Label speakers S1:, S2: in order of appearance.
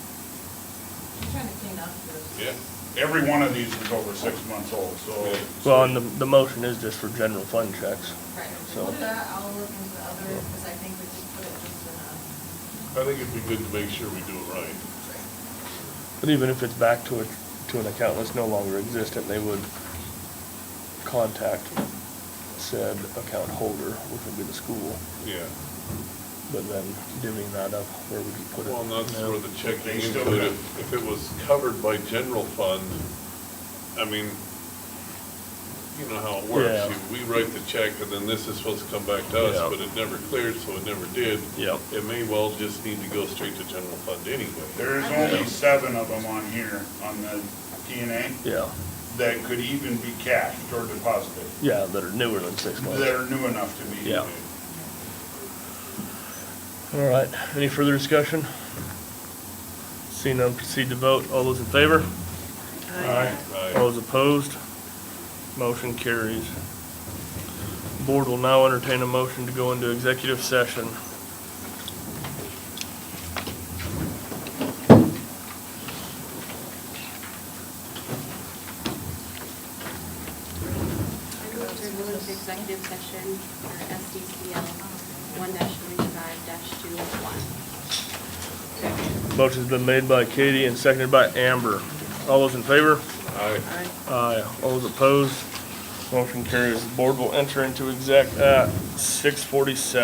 S1: trying to clean up your.
S2: Yeah, every one of these is over six months old, so.
S3: Well, and the, the motion is just for general fund checks.
S1: Right,
S3: So-
S1: we'll do that, I'll look into the other, because I think we should put it just in a.
S4: I think it'd be good to make sure we do it right.
S3: But even if it's back to a, to an account that's no longer existent, they would contact said account holder, which would be the school,
S4: Yeah.
S3: but then divvying that up, where would you put it?
S4: Well, and that's
S3: Yeah.
S4: where the checking
S2: They still
S4: included,
S2: have-
S4: if it was covered by general fund, I mean, you know how it
S3: Yeah.
S4: works. You- We write the check and then this is supposed to come back to
S3: Yeah.
S4: us, but it never cleared, so it never did.
S3: Yep.
S4: It may well just need to go straight to general fund anyway.
S2: There's only seven of them on here, on the DNA,
S3: Yeah,
S2: that could even be cashed or deposited,
S3: yeah, that are newer than six months.
S2: that are new enough to be.
S3: Yeah. All right, any further discussion? Seeing none, proceed to vote. All those in favor?
S1: Oh,
S2: Aye.
S4: Aye.
S3: All those opposed? Motion carries. Board will now entertain a motion to go into executive session.
S5: I move to move to executive session for SDCL one thirty-five two oh one.
S3: Motion's been made by Katie and seconded by Amber. All those in favor?
S4: Aye.
S3: Aye. All those opposed? Motion carries. Board will enter into exec at six forty-seven.